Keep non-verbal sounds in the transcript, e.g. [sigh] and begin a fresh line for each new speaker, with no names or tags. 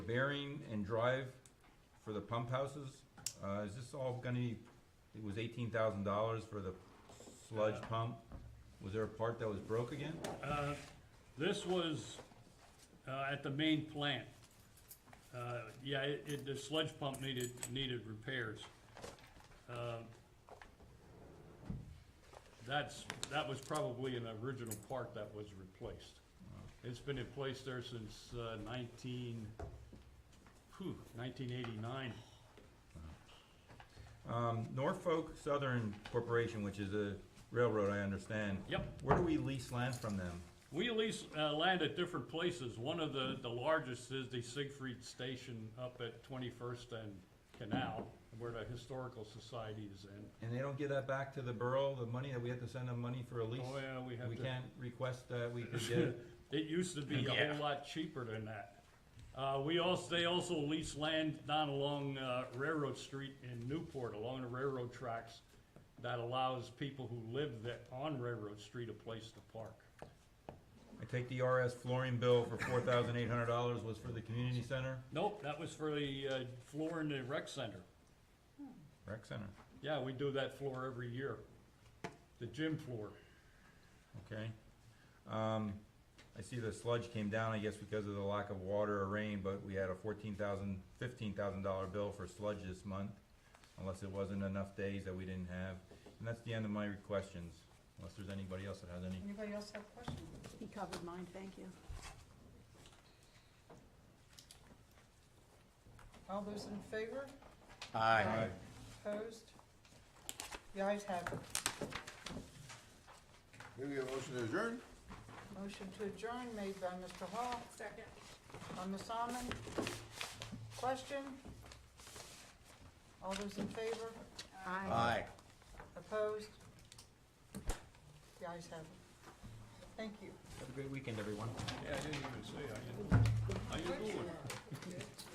bearing and drive for the pump houses, uh, is this all gonna be, it was eighteen thousand dollars for the sludge pump? Was there a part that was broke again?
Uh, This was uh, at the main plant. Uh, Yeah, it, it- the sludge pump needed, needed repairs. Um, That's, that was probably an original part that was replaced. It's been in place there since uh, nineteen, whew, nineteen eighty-nine.
Um, Norfolk Southern Corporation, which is a railroad, I understand.
Yep.
Where do we lease land from them?
We lease uh, land at different places. One of the, the largest is the Siegfried Station up at Twenty-first and Canal, where the Historical Society is in.
And they don't give that back to the borough, the money that we have to send them money for a lease?
Oh, yeah, we have
We
to.
can't request that we
[laughs]
could get it?
It used to be a
Yeah.
whole lot cheaper than that. Uh, we also, they also lease land down along uh, Railroad Street in Newport, along the railroad tracks. That allows people who live that, on Railroad Street a place to park.
I take the RS flooring bill for four thousand eight hundred dollars was for the community center,
Nope, that was for the uh, floor in the rec center.
rec center,
Yeah, we do that floor every year, the gym floor.
okay? Um, I see the sludge came down, I guess because of the lack of water or rain, but we had a fourteen thousand, fifteen thousand dollar bill for sludge this month. Unless it wasn't enough days that we didn't have, and that's the end of my questions, unless there's anybody else that has any.
Anybody else have questions?
He covered mine, thank you.
All those in favor?
Aye.
Opposed? The ayes have it.
Maybe we have a motion to adjourn?
Motion to adjourn made by Mr. Hall,
Second.
by Ms. Almond. Question? All those in favor?
Aye.
Aye.
Opposed? The ayes have it. Thank you.
Have a great weekend, everyone.
Yeah, I didn't even see, I didn't.